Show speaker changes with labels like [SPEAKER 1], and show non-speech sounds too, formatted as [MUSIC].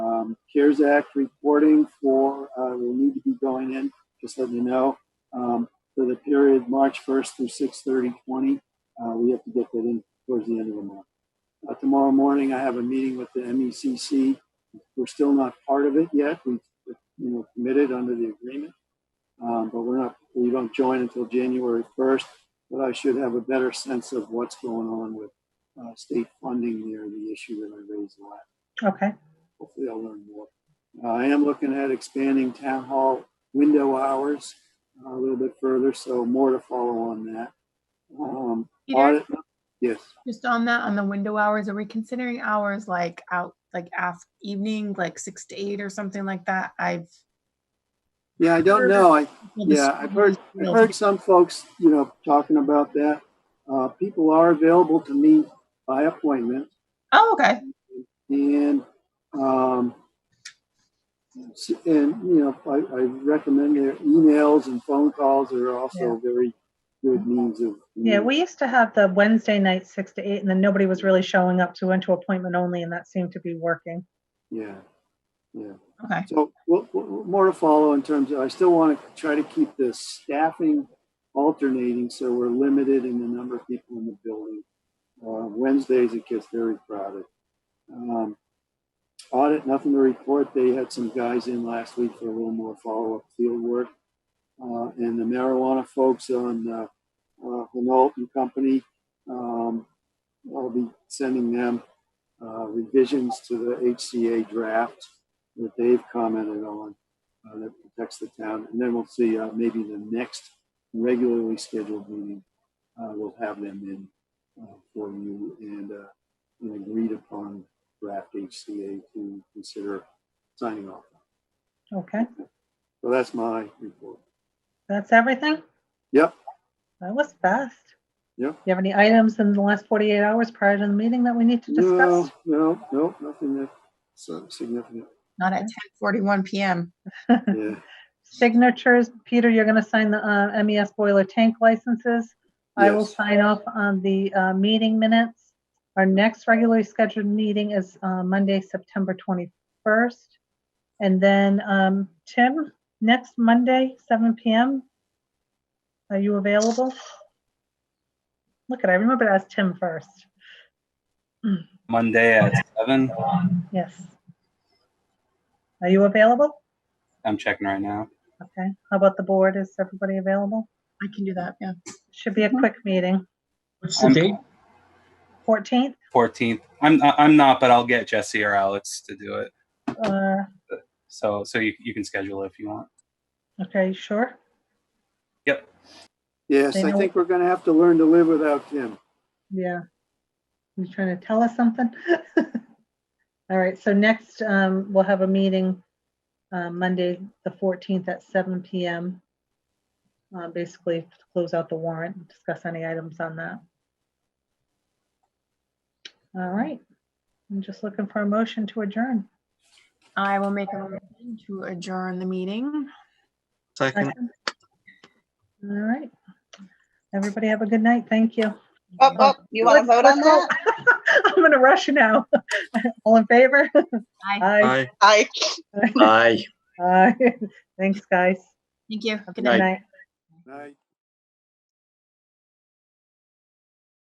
[SPEAKER 1] Um, CARES Act reporting for, uh, will need to be going in, just let you know. Um, for the period March 1st through 6/30/20, uh, we have to get that in towards the end of the month. Uh, tomorrow morning, I have a meeting with the MECC. We're still not part of it yet. We, you know, committed under the agreement. Um, but we're not, we don't join until January 1st, but I should have a better sense of what's going on with, uh, state funding there, the issue that I raised last
[SPEAKER 2] Okay,
[SPEAKER 1] hopefully I'll learn more. Uh, I am looking at expanding town hall window hours uh, a little bit further, so more to follow on that. Um,
[SPEAKER 3] Peter,
[SPEAKER 1] audit- Yes,
[SPEAKER 3] just on that, on the window hours, are we considering hours like out, like af, evening, like six to eight or something like that? I've.
[SPEAKER 1] yeah, I don't know, I, yeah, I've heard, I've heard some folks, you know, talking about that. Uh, people are available to meet by appointment,
[SPEAKER 3] Oh, okay.
[SPEAKER 1] And, um, s- and, you know, I, I recommend their emails and phone calls are also very good means of.
[SPEAKER 2] yeah, we used to have the Wednesday night, six to eight, and then nobody was really showing up to went to appointment only, and that seemed to be working.
[SPEAKER 1] Yeah, yeah.
[SPEAKER 3] Okay.
[SPEAKER 1] So we'll, we'll- more to follow in terms of, I still want to try to keep the staffing alternating, so we're limited in the number of people in the building. Uh, Wednesdays, it gets very crowded. Um, Audit, nothing to report. They had some guys in last week for a little more follow-up field work. Uh, and the marijuana folks on, uh, uh, Renault and Company, um, I'll be sending them, uh, revisions to the HCA draft that they've commented on uh, that protects the town. And then we'll see, uh, maybe the next regularly scheduled meeting, uh, we'll have them in uh, for you and uh, an agreed upon draft HCA to consider signing off.
[SPEAKER 2] Okay,
[SPEAKER 1] So that's my report.
[SPEAKER 2] that's everything?
[SPEAKER 1] Yep.
[SPEAKER 2] That was fast.
[SPEAKER 1] Yep.
[SPEAKER 2] Do you have any items in the last 48 hours prior to the meeting that we need to discuss?
[SPEAKER 1] No, no, no, nothing that so
[SPEAKER 2] [LAUGHS]
[SPEAKER 1] significant.
[SPEAKER 3] Not at ten forty-one PM.
[SPEAKER 1] Yeah.
[SPEAKER 2] signatures. Peter, you're going to sign the uh, MES boiler tank licenses. I will
[SPEAKER 1] Yes.
[SPEAKER 2] sign off on the uh, meeting minutes. Our next regularly scheduled meeting is uh, Monday, September 21st. And then, um, Tim, next Monday, 7 PM, are you available? Look at, I remember to ask Tim first.
[SPEAKER 4] Monday at seven.
[SPEAKER 2] Yes. Are you available?
[SPEAKER 4] I'm checking right now.
[SPEAKER 2] Okay. How about the board? Is everybody available?
[SPEAKER 3] I can do that, yeah.
[SPEAKER 2] Should be a quick meeting.
[SPEAKER 5] What's the
[SPEAKER 4] I'm-
[SPEAKER 5] date?
[SPEAKER 2] 14th?
[SPEAKER 4] Fourteenth. I'm I- I'm not, but I'll get Jesse or Alex to do it.
[SPEAKER 2] Uh,
[SPEAKER 4] So so you, you can schedule it if you want.
[SPEAKER 2] okay, sure.
[SPEAKER 1] Yes,
[SPEAKER 2] They
[SPEAKER 1] I
[SPEAKER 2] know-
[SPEAKER 1] think we're going to have to learn to live without Tim.
[SPEAKER 2] Yeah. You trying to tell us something? [LAUGHS] All right, so next, um, we'll have a meeting, uh, Monday, the fourteenth at seven PM. Uh, basically to close out the warrant, and discuss any items on that. All right, I'm just looking for a motion to adjourn.
[SPEAKER 3] I will make a motion to adjourn the meeting.
[SPEAKER 5] Second.
[SPEAKER 2] All right. Everybody have a good night. Thank you.
[SPEAKER 6] Oh, oh, you want to
[SPEAKER 2] Let's-
[SPEAKER 6] vote on
[SPEAKER 2] let's vote.
[SPEAKER 6] that?
[SPEAKER 2] [LAUGHS] I'm gonna rush now. All in favor? Aye.
[SPEAKER 5] Aye.
[SPEAKER 6] I.
[SPEAKER 5] Aye.
[SPEAKER 2] Aye. [LAUGHS] Thanks, guys.
[SPEAKER 3] Thank you. Good
[SPEAKER 2] Good
[SPEAKER 3] night.
[SPEAKER 2] night.
[SPEAKER 1] Right.